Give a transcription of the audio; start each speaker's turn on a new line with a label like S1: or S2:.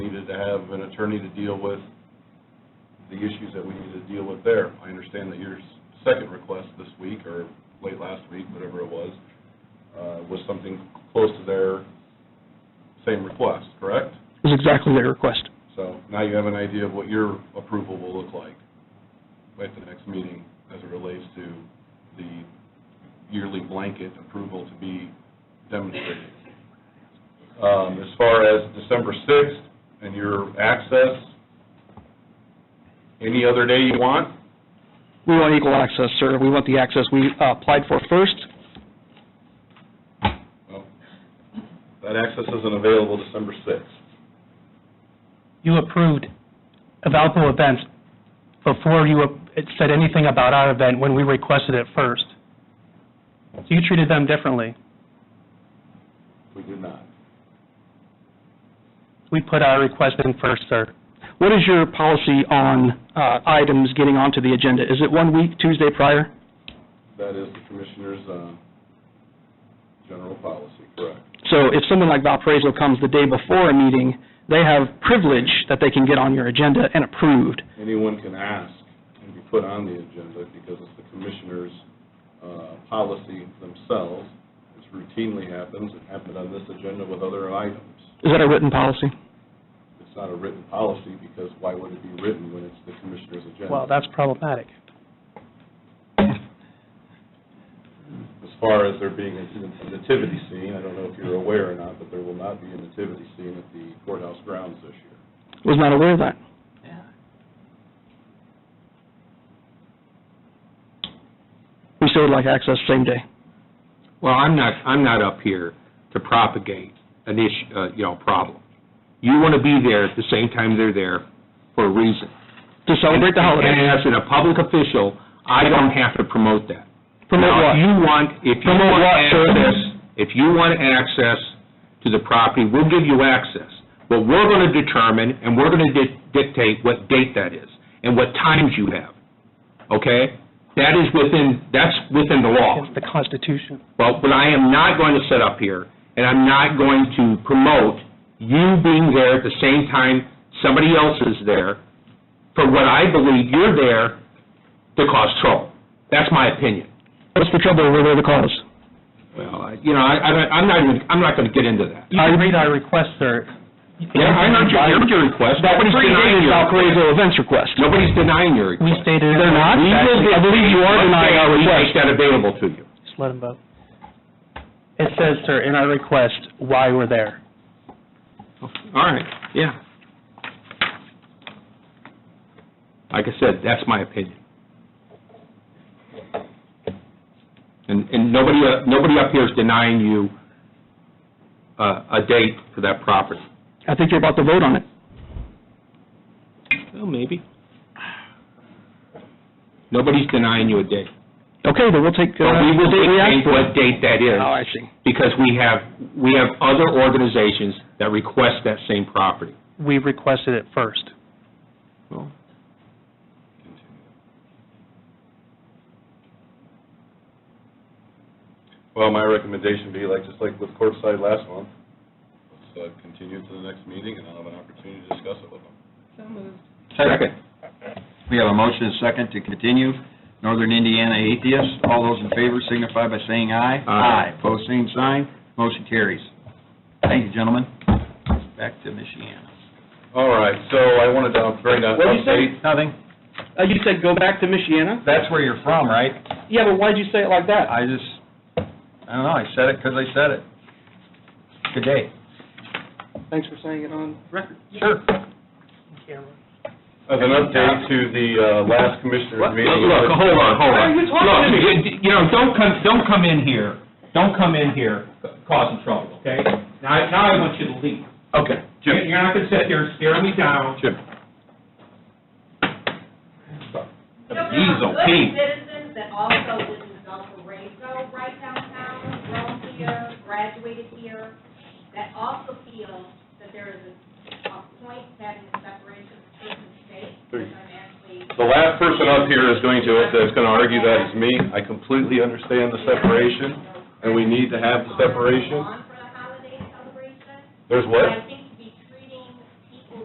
S1: to have an attorney to deal with the issues that we need to deal with there. I understand that your second request this week, or late last week, whatever it was, uh, was something close to their same request, correct?
S2: is exactly their request.
S1: So now you have an idea of what your approval will look like at the next meeting as it relates to the yearly blanket approval to be demonstrated. Um, As far as December 6th and your access, any other day you want?
S2: We want equal access, sir. We want the access we uh, applied for first.
S1: Well, That access isn't available December 6th.
S3: you approved of outdoor events before you ap- it said anything about our event when we requested it first. So you treated them differently.
S1: We did not.
S3: We put our request in first, sir.
S2: What is your policy on uh, items getting onto the agenda? Is it one week, Tuesday prior?
S1: That is the commissioner's uh, general policy, correct?
S2: So if someone like Valparaiso comes the day before a meeting, they have privilege that they can get on your agenda and approved.
S1: anyone can ask and be put on the agenda because it's the commissioner's uh, policy themselves. This routinely happens, it happened on this agenda with other items.
S2: Is that a written policy?
S1: It's not a written policy because why would it be written when it's the commissioner's
S3: Well,
S1: agenda?
S3: that's problematic.
S1: As far as there being a a nativity scene, I don't know if you're aware or not, but there will not be a nativity scene at the courthouse grounds this year.
S2: Was not aware of that. We still would like access same day.
S4: Well, I'm not, I'm not up here to propagate an issue, uh, you know, problem. You want to be there at the same time they're there for a reason.
S2: To celebrate the holiday.
S4: And as in a public official, I don't have to promote that.
S2: Promote
S4: Now,
S2: what?
S4: if you want, if you
S2: Promote
S4: want
S2: what, sir?
S4: access, if you want access to the property, we'll give you access. But we're going to determine, and we're going to dictate what date that is, and what times you have, okay? That is within, that's within the law.
S3: It's the Constitution.
S4: Well, but I am not going to sit up here, and I'm not going to promote you being there at the same time somebody else is there for what I believe you're there to cause trouble. That's my opinion.
S2: What's the trouble? We're there to cause.
S4: Well, I- you know, I, I don't- I'm not even, I'm not going to get into that.
S3: You can read our request, sir.
S4: Yeah, I heard your, I heard your request. Nobody's denying your,
S2: Valparaiso events request.
S4: nobody's denying your
S3: We
S4: request.
S3: stated.
S2: They're not?
S4: We will-
S2: I believe you are denying our
S4: We
S2: request.
S4: make that available to you.
S3: Just let him vote. It says, sir, in our request, why we're there.
S4: All right, yeah. Like I said, that's my opinion. And, and nobody, uh, nobody up here is denying you uh, a date for that property.
S2: I think you're about to vote on it.
S4: Well, maybe. Nobody's denying you a date.
S2: Okay, then we'll take,
S4: But
S2: uh,
S4: we will
S2: what we asked
S4: dictate
S2: for.
S4: what date that is.
S2: Oh, I see.
S4: Because we have, we have other organizations that request that same property.
S3: We requested it first.
S1: Well, my recommendation would be like, just like with Courtside last month, let's uh, continue to the next meeting and I'll have an opportunity to discuss it with them.
S5: Second. We have a motion and a second to continue. Northern Indiana Atheists, all those in favor signify by saying aye.
S4: Aye.
S5: Pose same sign, motion carries. Thank you, gentlemen. Back to Michiana.
S1: All right, so I wanted to bring up.
S6: What'd you say?
S5: Nothing.
S6: Uh, you said go back to Michiana?
S5: That's where you're from, right?
S6: Yeah, but why'd you say it like that?
S5: I just, I don't know, I said it because I said it. Good day.
S6: Thanks for saying it on record.
S5: Sure.
S1: As an update to the uh, last commissioner's
S4: Look,
S1: meeting.
S4: look, hold on, hold
S6: Why are
S4: on.
S6: you talking
S4: Look,
S6: to me?
S4: you- You know, don't come, don't come in here, don't come in here causing trouble, okay? Now, now I want you to leave.
S1: Okay,
S4: You- You're not gonna sit there and stare me down.
S1: Jim.
S4: He's okay.
S7: citizens that also live in Valparaiso, right downtown, grown here, graduated here, that also feel that there is a a point having a separation of church and state, which I'm actually
S1: The last person up here is going to, that's going to argue that is me. I completely understand the separation, and we need to have the
S7: on
S1: separation.
S7: for um, the holiday celebration.
S1: There's
S7: But I
S1: what?
S7: think